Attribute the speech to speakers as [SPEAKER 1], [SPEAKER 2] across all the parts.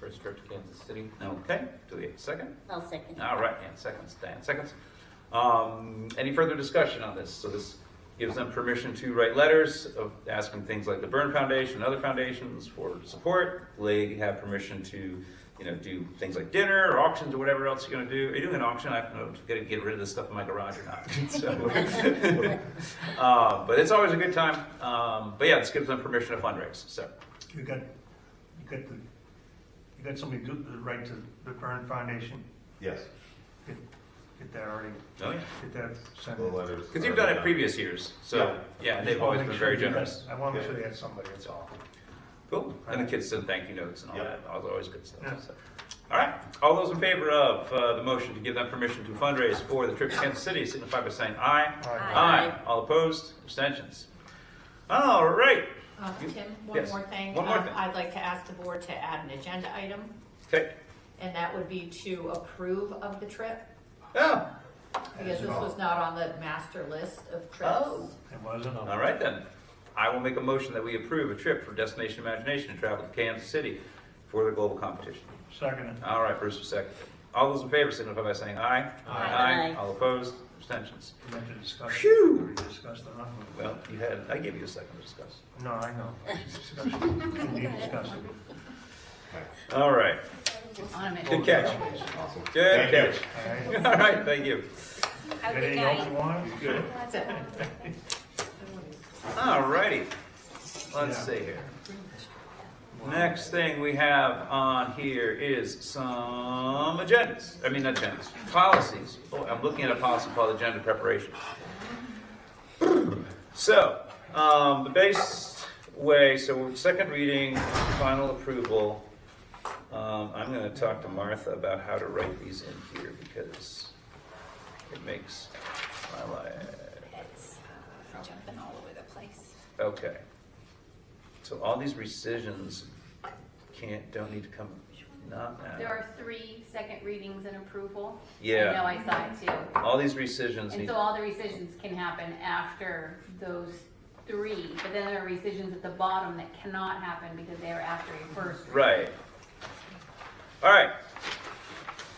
[SPEAKER 1] First Church, Kansas City. Okay, do we have a second?
[SPEAKER 2] I'll second.
[SPEAKER 1] All right, and seconds, Dan, seconds. Um, any further discussion on this? So this gives them permission to write letters of asking things like the Byrne Foundation and other foundations for support. They have permission to, you know, do things like dinner or auctions or whatever else you're gonna do. Are you doing an auction? I don't know, if I'm gonna get rid of this stuff in my garage or not. So, uh, but it's always a good time. Um, but yeah, this gives them permission to fundraise, so.
[SPEAKER 3] You got, you got the, you got somebody do the right to the Byrne Foundation,
[SPEAKER 4] Yes.
[SPEAKER 3] get, get that already,
[SPEAKER 1] Oh, yeah.
[SPEAKER 3] get that sent
[SPEAKER 4] The
[SPEAKER 3] in.
[SPEAKER 4] letters.
[SPEAKER 1] Because you've done it previous years, so, yeah, they've always been very generous.
[SPEAKER 3] I want to make sure they had somebody, that's all.
[SPEAKER 1] Cool. And the kids send thank you notes and all
[SPEAKER 4] Yeah.
[SPEAKER 1] that. That was always good stuff.
[SPEAKER 3] Yeah.
[SPEAKER 1] So. All right. All those in favor of uh, the motion to give them permission to fundraise for the trip to Kansas City signify by saying aye.
[SPEAKER 3] Aye.
[SPEAKER 1] All opposed? Abstentions? All right.
[SPEAKER 5] Uh,
[SPEAKER 1] You-
[SPEAKER 5] Tim, one
[SPEAKER 1] yes.
[SPEAKER 5] more thing.
[SPEAKER 1] One more
[SPEAKER 5] Um,
[SPEAKER 1] thing.
[SPEAKER 5] I'd like to ask the board to add an agenda item,
[SPEAKER 1] Okay.
[SPEAKER 5] and that would be to approve of the trip,
[SPEAKER 1] Oh,
[SPEAKER 5] because this was not on the master list of
[SPEAKER 1] Oh.
[SPEAKER 5] trips.
[SPEAKER 3] It wasn't,
[SPEAKER 1] all right then. I will make a motion that we approve a trip for Destination Imagination to travel to Kansas City for the global competition.
[SPEAKER 3] second,
[SPEAKER 1] All right, Bruce, a second. All those in favor signify by saying aye.
[SPEAKER 2] Aye.
[SPEAKER 1] All opposed? Abstentions?
[SPEAKER 3] we meant to discuss.
[SPEAKER 1] Phew.
[SPEAKER 3] We discussed enough of it.
[SPEAKER 1] Well, you had, I gave you a second to discuss.
[SPEAKER 3] No, I know. Discussed. We discussed it.
[SPEAKER 1] All right. Good catch.
[SPEAKER 4] Awesome.
[SPEAKER 1] Good
[SPEAKER 4] Thank you.
[SPEAKER 1] catch.
[SPEAKER 3] All right.
[SPEAKER 1] All right, thank you.
[SPEAKER 2] Have a good
[SPEAKER 3] Anything else you
[SPEAKER 2] night.
[SPEAKER 3] want?
[SPEAKER 1] Good.
[SPEAKER 5] That's it.
[SPEAKER 1] All righty. Let's
[SPEAKER 3] Yeah.
[SPEAKER 1] see here. Next thing we have on here is some agendas. I mean, not agendas, policies. Oh, I'm looking at a policy called agenda preparation. So, um, the base way, so second reading, final approval. Um, I'm gonna talk to Martha about how to write these in here because it makes my life
[SPEAKER 2] Jumping all over the place.
[SPEAKER 1] Okay. So all these rescissions can't, don't need to come, not
[SPEAKER 6] There
[SPEAKER 1] now.
[SPEAKER 6] are three second readings and approval. I know
[SPEAKER 1] Yeah,
[SPEAKER 6] I saw it too.
[SPEAKER 1] all these rescissions
[SPEAKER 6] And
[SPEAKER 1] need,
[SPEAKER 6] so all the rescissions can happen after those three, but then there are rescissions at the bottom that cannot happen because they are after a first.
[SPEAKER 1] right. All right.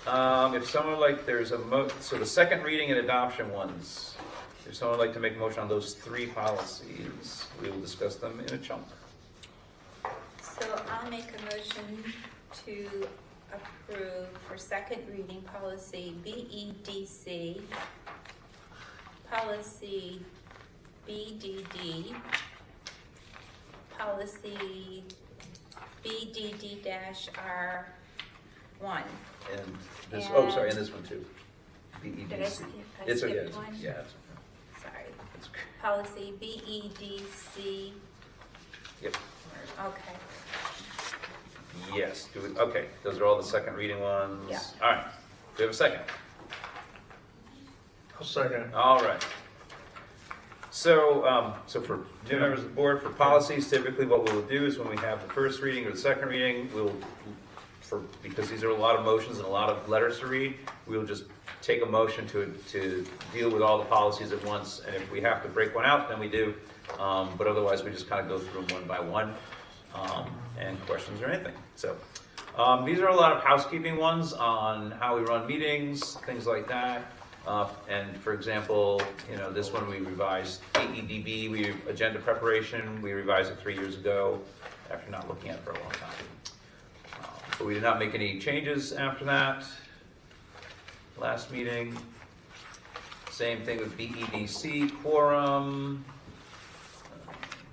[SPEAKER 1] Um, if someone like, there's a mo, so the second reading and adoption ones, if someone would like to make a motion on those three policies, we will discuss them in a chunk.
[SPEAKER 7] So I'll make a motion to approve for second reading policy E BEDC, policy BDD, policy BDD-R1.
[SPEAKER 1] And this, oh, sorry, and
[SPEAKER 7] And-
[SPEAKER 1] this one too. E
[SPEAKER 7] Did I
[SPEAKER 1] BEDC.
[SPEAKER 7] skip, I
[SPEAKER 1] It's okay,
[SPEAKER 7] skipped
[SPEAKER 1] it's-
[SPEAKER 7] one?
[SPEAKER 1] yeah, it's-
[SPEAKER 7] Sorry.
[SPEAKER 1] it's-
[SPEAKER 7] Policy E BEDC,
[SPEAKER 1] yep.
[SPEAKER 7] okay.
[SPEAKER 1] Yes, do we, okay, those are all the second reading ones?
[SPEAKER 7] Yeah.
[SPEAKER 1] All right, do we have a second?
[SPEAKER 3] I'll second.
[SPEAKER 1] All right. So, um, so for new members of the board, for policies, typically what we'll do is when we have the first reading or the second reading, we'll, for, because these are a lot of motions and a lot of letters to read, we'll just take a motion to, to deal with all the policies at once, and if we have to break one out, then we do. Um, but otherwise, we just kind of go through them one by one, um, and questions or anything, so. Um, these are a lot of housekeeping ones on how we run meetings, things like that. Uh, and for example, you know, this one we revised AEDB, we, agenda preparation, we revised it three years ago after not looking at it for a long time. Uh, But we did not make any changes after that. Last meeting, same thing with BEDC quorum.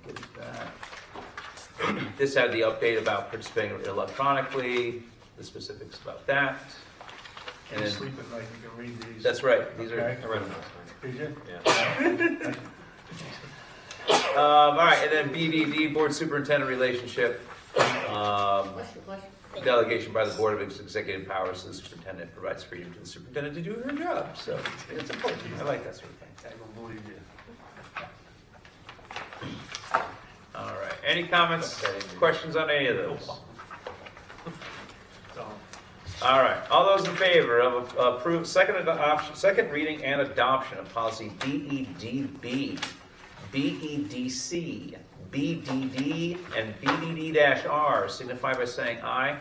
[SPEAKER 1] Get that. This had the update about participating electronically, the specifics about that. And
[SPEAKER 3] Can you
[SPEAKER 1] then
[SPEAKER 3] sleep at night, you can read these.
[SPEAKER 1] that's right, these are.
[SPEAKER 3] Okay.
[SPEAKER 1] I read them.
[SPEAKER 3] Did you?
[SPEAKER 1] Um, all right, and then BDD, Board Superintendent Relationship, um,
[SPEAKER 5] Bless you, bless you.
[SPEAKER 1] delegation by the Board of Executive Powers to the Superintendent provides freedom to the superintendent to do her job, so it's important, I like that sort of thing.
[SPEAKER 3] I don't believe you.
[SPEAKER 1] All right, any comments, questions on any of those?
[SPEAKER 3] So.
[SPEAKER 1] All right, all those in favor of approve, second adoption, second reading and adoption of policy E BEDB, E BEDC, BDD, and BDD-R signify by saying aye.